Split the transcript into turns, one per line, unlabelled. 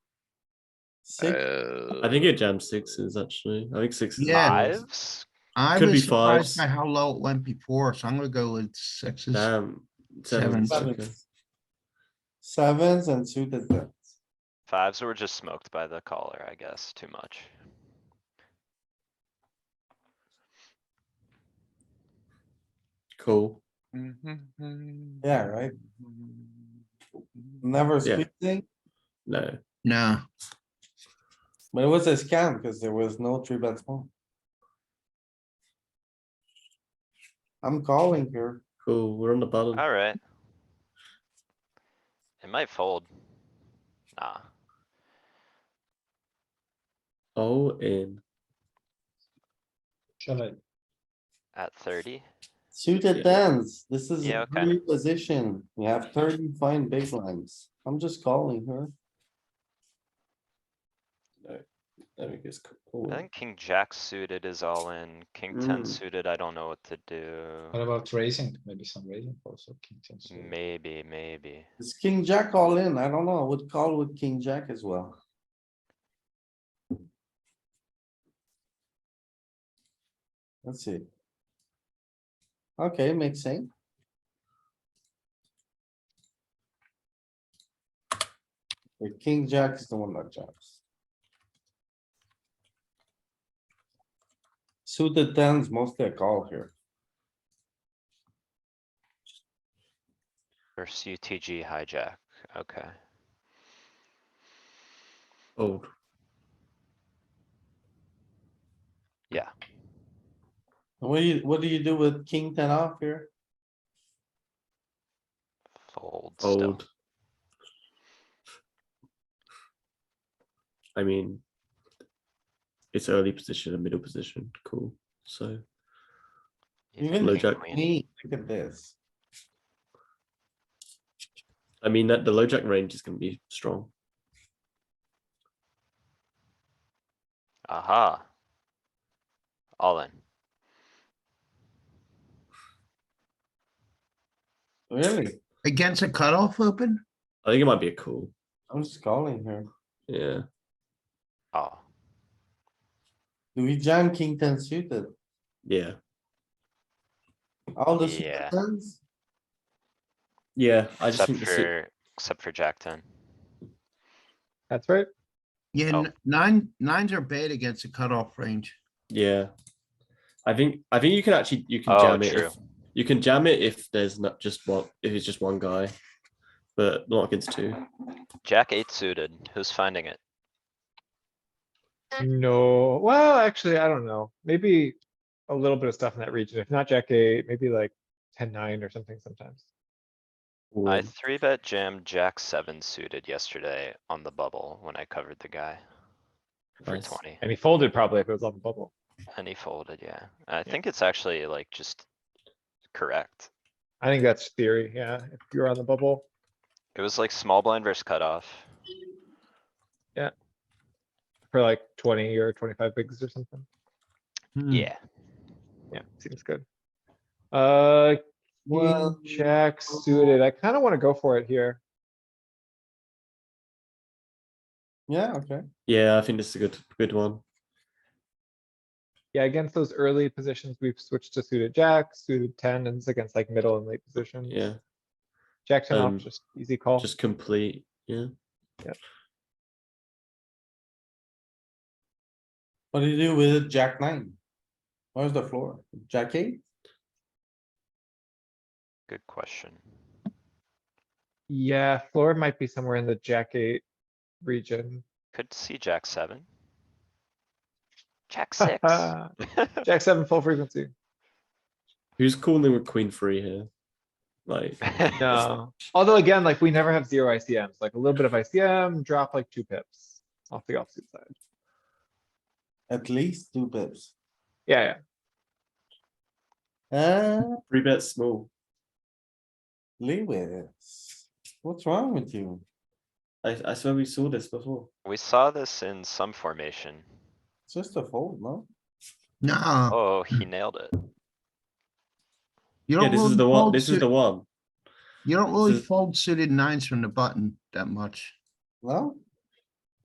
Six,
Uh,
I think it jammed sixes actually. I think sixes.
Yeah.
Fives?
I
could be
was
fives.
surprised by how low it went before, so I'm gonna go with sixes.
Damn. Sevens.
Sevens.
okay.
Sevens and suited tens.
Fives were just smoked by the caller, I guess, too much.
Cool.
Mm-hmm.
Yeah, right? Never
Yeah.
squeezing,
No.
No,
but it was a scam because there was no three bet small. I'm calling here.
Cool. We're on the bottom.
Alright. It might fold. Nah,
All in.
Shall I?
at thirty?
Suited
Yeah.
tens, this is
Yeah,
a
okay.
new position. We have thirty fine big lines. I'm just calling her.
There we go. it's
I
Cool.
think king jack suited is all in. King ten
Mm.
suited, I don't know what to
What
do.
about raising? Maybe some raising also, king ten suited.
Maybe, maybe.
Is king jack all in? I don't know. I would call with king jack as well. Let's see. Okay, makes sense. The king jack is the one that jumps. Suited tens mostly a call here.
Or CTG hijack, okay.
Old.
What do you, what do you do with king ten off here?
Fold still.
Old. I mean, it's early position and middle position. Cool. So
You
Even
think
low
king
jack.
queen?
Me, look at this.
I mean that the low jack range is going to be strong.
Aha. All in.
Really?
against a cutoff open?
I think it might be a call.
I'm just calling here.
Yeah.
Oh,
Do we jam king ten suited?
Yeah.
All the
Yeah.
suited tens?
Yeah. I just
except
think the suit-
for, except for jack ten.
That's right.
Yeah,
Oh.
n- nine, nines are bad against a cutoff range.
Yeah. I think I think you can actually you can
Oh,
jam it.
true.
If, you can jam it if there's not just one if it's just one guy, but not against two.
Jack eight suited, who's finding it?
No, well, actually, I don't know. Maybe a little bit of stuff in that region. If not jack eight, maybe like ten, nine or something sometimes.
I
Or-
three bet jammed jack seven suited yesterday on the bubble when I covered the guy. For
Nice.
twenty,
And he folded probably if it was on the bubble.
and he folded, yeah. I think it's actually like just correct.
I think that's theory, yeah. If you're on the bubble,
It was like small blind versus cutoff.
for like twenty or twenty-five bigs or something.
Yeah.
Yeah, seems good. Uh,
Well,
king jack suited. I kinda wanna go for it here.
yeah, okay.
Yeah, I think this is a good good one.
Yeah, against those early positions, we've switched to suited jack, suited ten, and it's against like middle and late positions.
Yeah.
Jack ten
um,
off, just easy call.
Just complete. Yeah.
What do you do with jack nine? Where's the floor? Jack eight?
Good question.
Yeah, floor might be somewhere in the jack eight region.
Could see jack seven. Jack six.
Uh, Jack seven full frequency.
Who's calling with queen three here? Like
No, although again, like we never have zero ICMs, like a little bit of ICM, drop like two pips off the offsuit side.
At least two pips.
Yeah, yeah.
Uh,
three bet small.
Lewis, what's wrong with you?
I, I swear we saw this before.
We saw this in some formation.
It's just a fold, no?
No,
Oh, he nailed it.
you
Yeah,
don't
this is
really
the one.
fold,
This is
suit-
the one.
you don't really
this is-
fold suited nines from the button that much.
No?